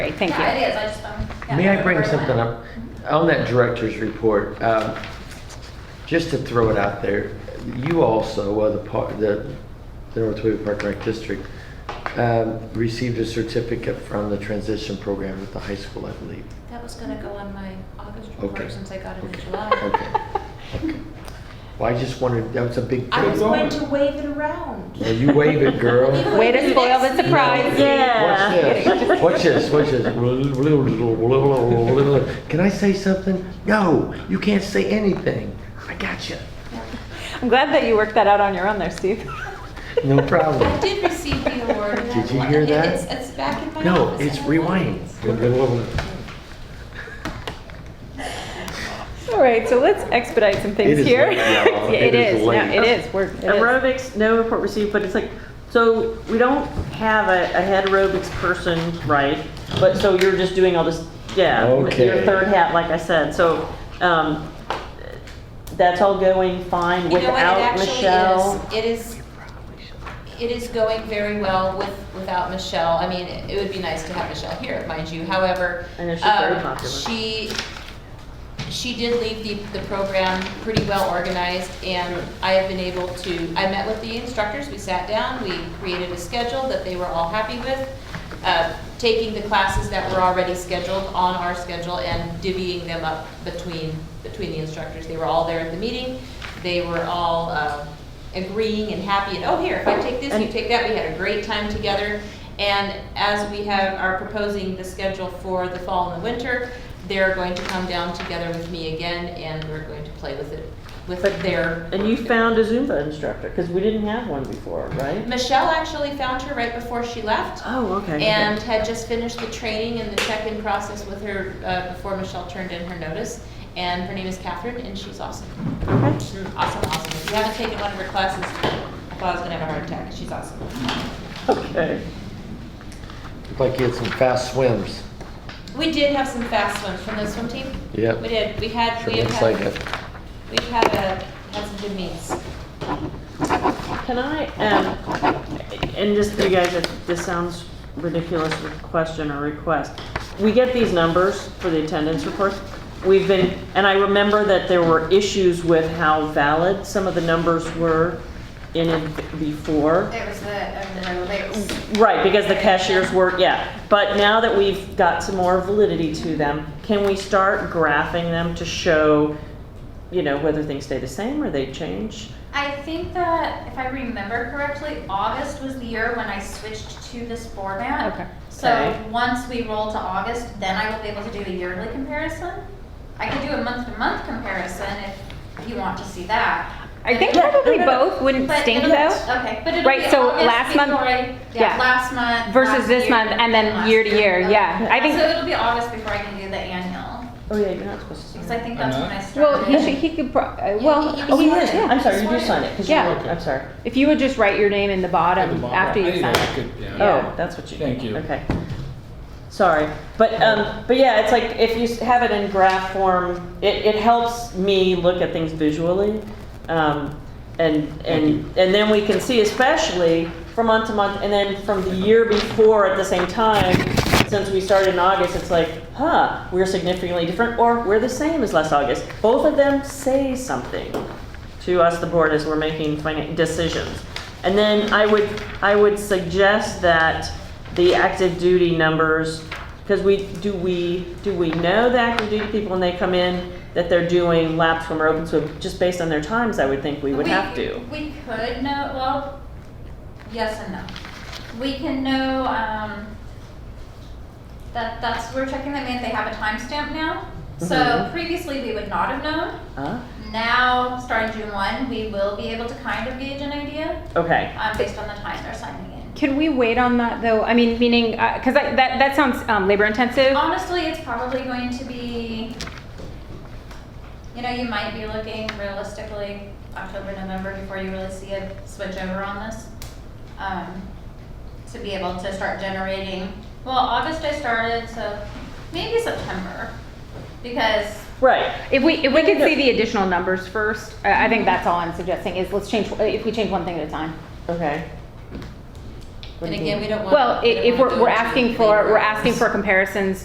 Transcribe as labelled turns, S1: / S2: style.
S1: great, thank
S2: Yeah,
S1: you.
S2: it is, I just, um. yeah,
S3: May I bring
S2: very
S3: something
S2: well.
S3: up? On that director's report, um, just to throw it out there, you also, uh, the par the the North Toledo Park and Rec District, um, received a certificate from the transition program at the high school, I believe.
S2: That was gonna go on my August
S3: Okay.
S2: report since I got it in
S3: Okay.
S2: July.
S3: Okay. Well, I just wanted, that was a big
S2: I was
S3: thing.
S2: going to wave it around.
S3: Well, You wave it, girl.
S1: Way to spoil the surprise.
S3: Watch this. Watch this. Watch this. Can I say something? No, you can't say anything. I got you.
S1: I'm glad that you worked that out on your own there, Steve.
S3: No problem.
S2: I did receive the award. and
S3: Did you
S2: I-
S3: hear
S2: and
S3: that?
S2: It's, it's back in my
S3: No,
S2: office.
S3: it's
S2: and I love
S3: rewind.
S2: it.
S1: All right, so let's expedite some things
S3: It is
S1: here.
S3: late, y'all.
S1: Yeah,
S3: It
S1: it
S3: is
S1: is, no,
S3: late.
S1: it is, we're, it is.
S4: Aerobics, no report received, but it's like, so we don't have a, a head aerobics person, right? But, so you're just doing all this, yeah, with your
S3: Okay.
S4: third hat, like I said, so, um, that's all going fine
S2: You know what, it
S4: without Michelle?
S2: actually is, it is, it is going very well with, without Michelle. I mean, it it would be nice to have Michelle here, mind you, however.
S4: I know she's very
S2: um,
S4: popular.
S2: She, she did leave the, the program pretty well organized, and I have been able to, I met with the instructors, we sat down, we created a schedule that they were all happy with, uh, taking the classes that were already scheduled on our schedule and divvying them up between, between the instructors. They were all there at the meeting, they were all uh, agreeing and happy, and, oh, here, if I take this, you take that, we had a great time together. And as we have, are proposing the schedule for the fall and the winter, they're going to come down together with me again, and we're going to play with it, with
S4: But-
S2: their.
S4: And you found a Zumba instructor, because we didn't have one before, right?
S2: Michelle actually found her right before she left,
S4: Oh, okay. okay.
S2: and had just finished the training and the check-in process with her, uh, before Michelle turned in her notice. And her name is Catherine, and she's awesome.
S4: Okay.
S2: She's Awesome, awesome. If you haven't taken one of her classes, Claude's gonna have a heart attack, she's awesome.
S4: Okay.
S3: Looked like you had some fast swims.
S2: We did have some fast ones from the swim team.
S3: Yep.
S2: We did, we had,
S3: Sure
S2: we have
S3: looks like
S2: had,
S3: it.
S2: we've had, uh, had some good meets.
S4: Can I, um, and just, you guys, if this sounds ridiculous question or request. We get these numbers for the attendance reports. We've been, and I remember that there were issues with how valid some of the numbers were in it before.
S5: It was the, um, the lakes.
S4: Right, because the cashiers were, yeah. But now that we've got some more validity to them, can we start graphing them to show, you know, whether things stay the same or they change?
S5: I think that, if I remember correctly, August was the year when I switched to this format.
S1: Okay.
S5: So
S4: Okay.
S5: once we roll to August, then I will be able to do a yearly comparison. I could do a month-to-month comparison if you want to see that.
S1: I think
S5: But-
S1: probably both wouldn't
S5: but
S1: stink
S5: it'll-
S1: though,
S5: Okay, but it'll
S1: Right,
S5: be
S1: so
S5: August
S1: last month-
S5: before I-
S1: yeah.
S5: Yeah, last month.
S1: versus
S5: last
S1: this
S5: year,
S1: month, and then
S5: last
S1: year to year, yeah. I
S5: Okay. So
S1: think,
S5: it'll be August before I can do the annual,
S4: Oh, yeah, you're not supposed to. say
S5: because
S4: that.
S5: I think that's when I started.
S1: well, he should, he could, pro- uh, well,
S5: you-
S1: if
S4: Oh,
S1: you
S4: he
S1: would-
S4: is. I'm
S1: yeah.
S4: sorry, you do sign it, because you
S1: Yeah.
S4: look, I'm sorry.
S1: If you would just write your name in the
S6: At the
S1: bottom
S6: bottom.
S1: after
S6: I
S1: you
S6: think
S1: sign
S6: that's
S1: it.
S6: good, yeah.
S1: Yeah.
S4: Oh, that's what you do.
S6: Thank you.
S4: Okay. Sorry, but, um, but yeah, it's like, if you s- have it in graph form, it, it helps me look at things visually. Um, and, and, and then we can see especially from month to month, and then from the year before at the same time, since we started in August, it's like, huh, we're significantly different, or we're the same as last August. Both of them say something to us, the board, as we're making finan- decisions. And then I would, I would suggest that the active duty numbers, because we, do we, do we know the active duty people when they come in that they're doing lap swim or open swim, just based on their times, I would think we would have to.
S5: We could know, well, yes and no. We can know, um, that, that's, we're checking them in, they have a timestamp now. So
S4: Mhm.
S5: previously, we would not have known.
S4: Huh?
S5: Now, starting June one, we will be able to kind of gauge an idea,
S4: Okay,
S5: um, based on the time they're signing in.
S1: Can we wait on that though? I mean, meaning, uh 'cause cause I- that, that sounds, um, labor intensive.
S5: Honestly, it's probably going to be, you know, you might be looking realistically October, November before you really see a switch over on this. Um, to be able to start generating, well, August I started, so maybe September, because
S4: right,
S1: If we, if we could see the additional numbers first, I I think that's all I'm suggesting is let's change, if we change one thing at a time.
S4: okay. What
S2: And
S4: do you
S2: again,
S4: mean?
S2: we don't want.
S1: Well, i-
S2: we don't
S1: if
S2: wanna
S1: we're,
S2: go
S1: we're
S2: into
S1: asking
S2: labor
S1: for, we're
S2: hours.
S1: asking for comparisons